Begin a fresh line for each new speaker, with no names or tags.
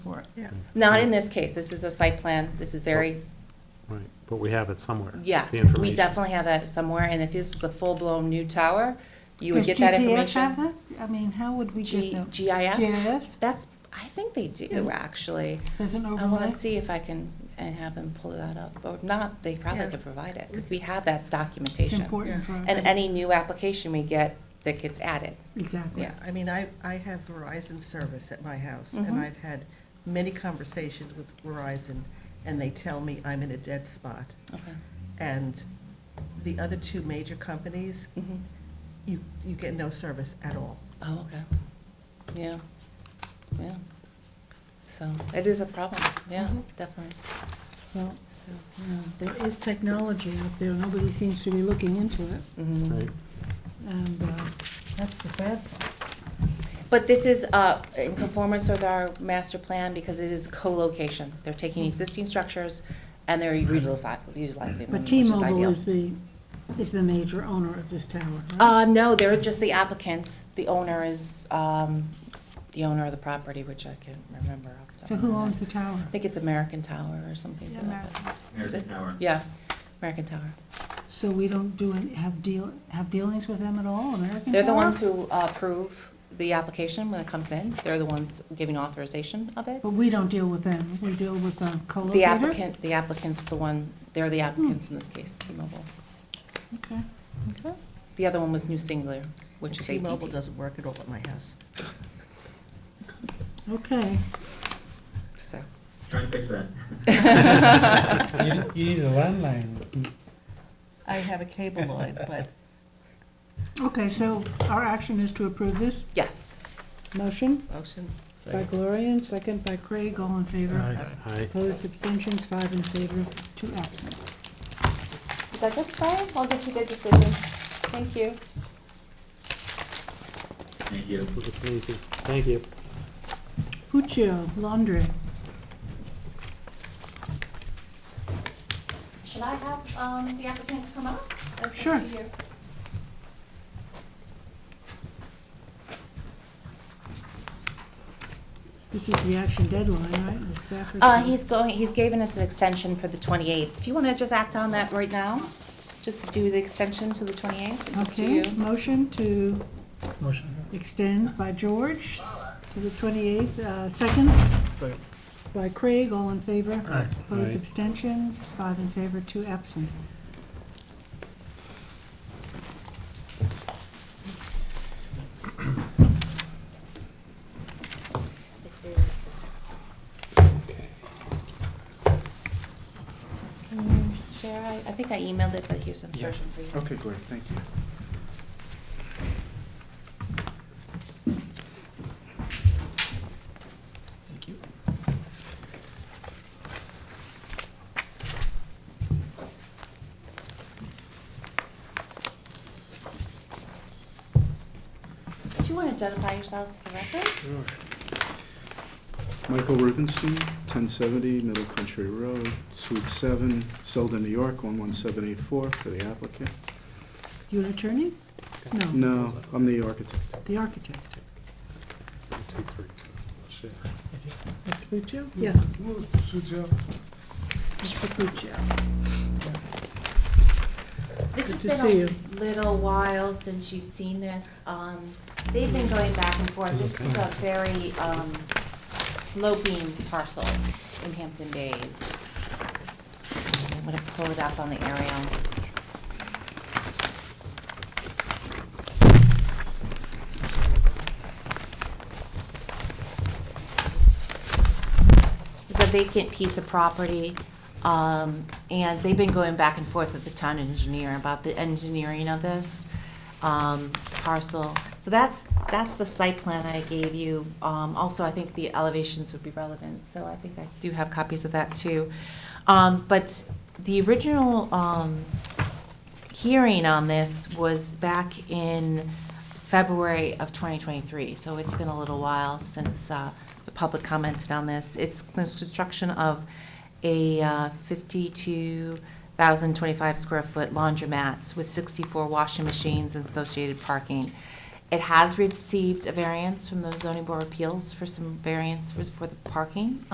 for.
Yeah.
Not in this case, this is a site plan, this is very,
Right, but we have it somewhere. Oh, the
yes, we
information.
definitely have that somewhere, and if this was a full-blown new tower, you would
Does
get that
GPS have
information.
that? I mean, how would we
G-
get the?
GIS?
GIS?
That's, I think they do, actually.
There's an
I wanna
overlay?
see if I can, and have them pull that up, or not, they probably
Yeah.
could provide it, because we have that
It's
documentation.
important for us.
And any new application we get that gets added.
Exactly.
Yeah, I mean, I, I have Verizon service at my house, and
Mhm.
I've had many conversations with Verizon, and they tell me I'm in a dead spot.
Okay.
And the other two major companies,
Mhm.
you, you get no service at all.
Oh, okay. Yeah, yeah. So it is a problem, yeah,
Mhm.
definitely.
Well,
So,
yeah, There is technology out there, nobody seems to be looking into it,
mhm.
Right,
and uh,
Mm,
that's the sad part.
But this is uh, in conformance with our master plan because it is co-location. They're taking existing structures and they're utilizi- utilizing them,
Mm-hmm. But
which is
T-Mobile
ideal.
is the, is the major owner of this tower, right?
Uh, no, they're just the applicants. The owner is, um, the owner of the property, which I can't remember. off the top
So
of
who
my head.
owns the tower?
I think it's American Tower or something. to that effect. Is
American
it?
Tower.
Yeah, American Tower.
So we don't do, any- have deal, have dealings with them at all, American
They're the
Tower?
ones who uh, approve the application when it comes in. They're the ones giving authorization of it.
But we don't deal with them, we deal with uh, the co-locator?
The applicant, the applicant's the one, they're the applicants in this case, T-Mobile.
Okay.
Okay. The other one was New Singular, which is
T-Mobile
AT&T.
doesn't work at all at my house.
Okay,
So,
Try and fix that.
You, you need a landline.
I have a cable line, but
okay, so our action is to approve this
yes.
motion
motion,
by Gloria and second by Craig, all in favor.
Aye, aye.
Opposed, abstentions, five in favor, two absent.
Is that good, Brian? I'll get you the decision. Thank you.
thank you.
This was amazing. Thank you.
Puccio Laundry,
Should I have um, the applicant come up? That's up to
Sure.
you.
this is the action deadline, right? The Stafford-
Uh, he's going, he's given us an extension for the 28th. Do you want to just act on that right now? Just to do the extension to the 28th? It's up to
Okay,
you.
motion to
Motion.
extend by George to the 28th, uh, second by Craig, all in favor.
Aye.
Opposed
Aye.
abstentions, five in favor, two absent.
This is, this. Can you share? I, I think I emailed it, but here's a
Yeah.
version for you.
Okay, great, thank you. Thank you.
Do you want to identify yourselves for the record?
Michael Rubenstein, 1070 Middle Country Road, Suite 7, Selden, New York, 11784, for the applicant.
You an attorney?
Oh,
No,
No, I'm the architect. Oh,
the architect.
One, two, three. Shit.
Mr. Puccio? Yeah. Mr. Puccio.
This has
Good to
been
see you.
a little while since you've seen this. Um, They've been going back and forth. This is a very um, sloping parcel in Hampton Bays. I'm gonna pull it up on the aerial. It's a vacant piece of property, um, and they've been going back and forth with the town engineer about the engineering of this, um, parcel. So that's, that's the site plan I gave you. Um, also, I think the elevations would be relevant, so I think I do have copies of that too. Um, but the original, um, hearing on this was back in February of 2023, so it's been a little while since uh, the public commented on this. It's construction of a uh, 52,025 square foot laundromats with 64 washing machines and associated parking. It has received a variance from the zoning board of appeals for some variance for for the parking